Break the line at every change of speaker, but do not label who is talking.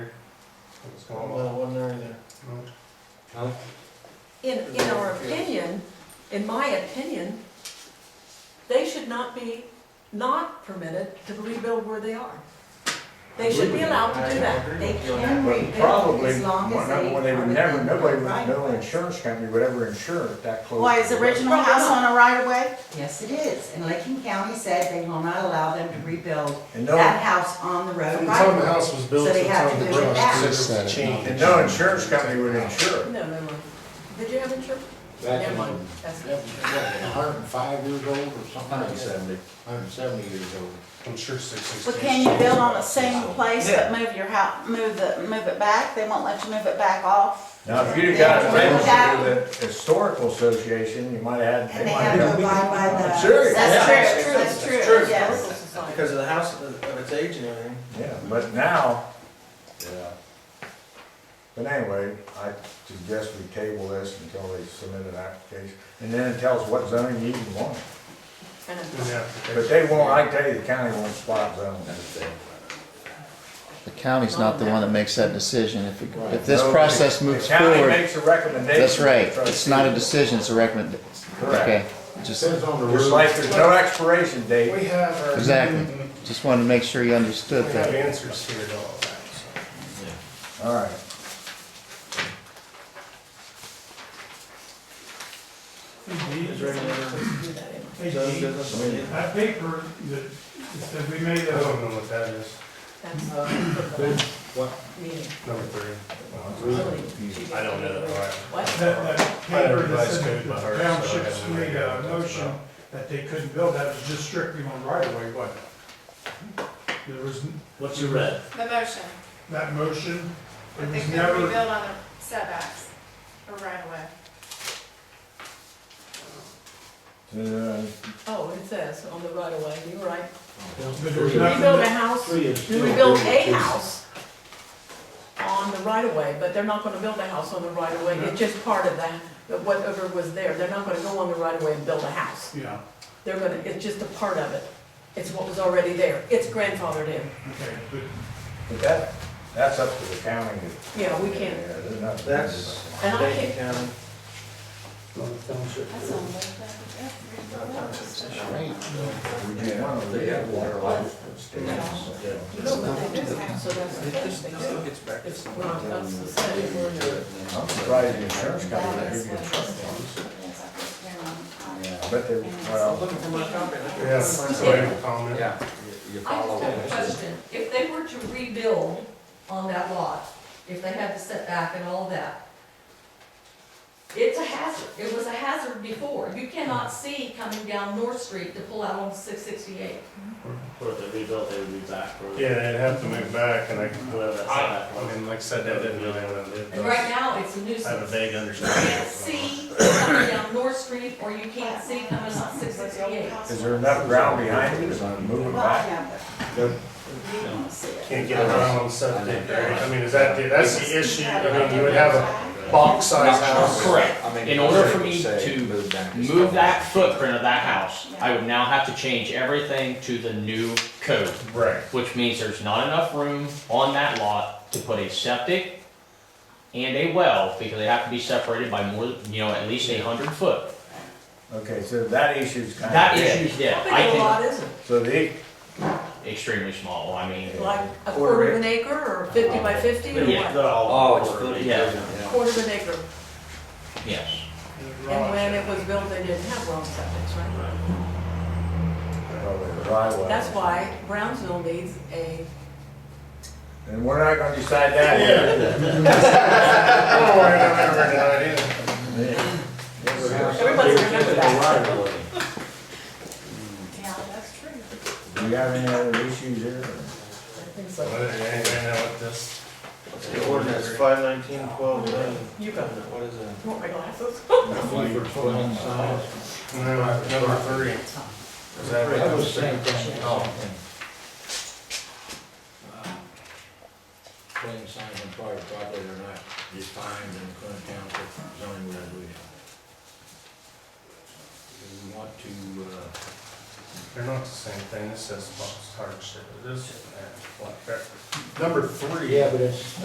What's
Well,
going on?
it wasn't there either.
No.
In, in our opinion, in my opinion, they should not be not permitted to rebuild where they are. They should be allowed to do that.
They can
But
rebuild
probably,
as long as they.
well, they
are
would never,
within
nobody
the
would,
right
no
of way.
insurance company would ever insure it that close.
Why, is
to
the
the-
original house on a right of way?
Yes, it is, and Lakin County said they will not allow them to rebuild
And
that
no,
house on the
From
road
the
right
time
of
the
way.
house was built
So
to
they
the
have
time
to
the
do it
garage,
back.
considered changed.
and no insurance company would insure it.
No, no, no. Did you have insurance?
Back in,
Never
what,
mind. That's-
hundred and five years old or something like that? Hundred and seventy years old.
I'm sure six, six.
But can you build on the same place but move your house, move the, move it back? They won't let you move it back off?
Now, if you'd have got a permit through the historical association, you might have had.
And they
might
have to
have-
abide by
I'm
the,
serious, yeah.
That's true,
That's
that's
true.
true,
Historical
yes.
Society.
Because of the house, of of its age and everything.
Yeah, but now, yeah. But anyway, I suggest we table this until they submit an application, and then it tells what zoning you even want.
And a-
Yeah.
But they won't, I tell you, the county won't spot zone.
The county's not the one that makes that decision. If, it- if this
No,
process
the-
moves
The county
forward,
makes a recommendation.
that's right.
to the
It's not a
trustees.
decision, it's a recommend,
Correct.
okay. Just,
Says on the
Just
roof.
like there's no expiration date.
We have our.
exactly. Just wanted to make sure you
We
understood
have
that.
answers here to all that, so.
All right.
Is there any other
do that anyway.
done business?
That paper that, that we made,
I
uh,
don't know what that is,
That's the
What?
meeting.
number three.
Really, she did.
I don't know, all right.
What?
that, that
I had a
paper that
revised
said
code by
that
heart,
the
so I
townships
haven't
made
really
a
got that
motion
far.
that they couldn't build, that was just strictly on right of way, wasn't it? There was, n-
What you read?
The motion,
that motion, it
they
was
could
never,
rebuild on the setbacks or right away.
Uh,
Oh, it says on the right of way, you're right.
but there's
Rebuild a
nothing,
house,
Three is-
you rebuild a house on the right of way, but they're not gonna build a house on the right of way, it's just part of that, of whatever was there, they're not gonna go on the right of way and build a house.
yeah,
They're gonna, it's just a part of it, it's what was already there, it's grandfathered in,
okay, but
But that, that's up to the county. to-
Yeah, we can't-
Yeah, there's nothing.
That's-
and I
Dayton
think,
County.
That's on the.
We do want to leave water life.
you know what they do, so that's the first thing, so it's not, that's the second word.
I'm surprised the insurance company would give you a truck. But they, well,
Looking for my copy.
Yeah.
So I have a comment.
Yeah. You
I just have a
follow.
question. If they were to rebuild on that lot, if they had the setback and all that, it's a hazard. It was a hazard before. You cannot see coming down North Street to pull out on six sixty-eight.
Or if they rebuilt, they would be back for.
Yeah, they'd have to move back and I,
Whatever that's
I,
at.
I mean, like I said, that didn't really, have
And
a-
right now, it's a
I have a
nuisance.
vague
You
understanding.
can't see coming down North Street, or you can't see coming on six sixty-eight.
is there enough ground behind it to move it
Well, I
back?
have it.
You know,
Can't get around on septic, right? I mean, is that, the- that's the issue, I mean, you would have a box size house.
Correct.
I mean,
In order for
they
me
say
to
move back is
move that
fine.
footprint of that house, I would now have to change everything to the new code,
Right.
which means there's not enough room on that lot to put a septic and a well, because they have to be separated by more, you know, at least a hundred foot.
Okay, so that issue's kind of.
That issue's
How
dead. I
big a
think
lot is it?
So the,
extremely small. I mean,
Like a quarter of an acre, or fifty by fifty, or
yeah.
what?
Oh, it's
good.
good.
Yeah,
Quarter of an acre,
yes.
and when it was built, they didn't have wrong septic, right?
probably Oh, the right way.
That's why Brownsville needs a,
And we're not gonna decide that yet.
Oh, I don't worry about remembering that idea.
everybody remember that.
Yeah, that's true.
Do you have any other issues here?
I
or-
think
But
so.
anyway, now with this.
The ordinance five nineteen twelve,
You got it.
what is that?
Want my glasses?
No, number three. Is that what-
That was the same thing.
Oh.
Putting signs on private property are not defined in Clinton Township zoning resolution. Do we want to, uh,
They're not the same thing, this says box hardship, this, and what, number three.
but it's.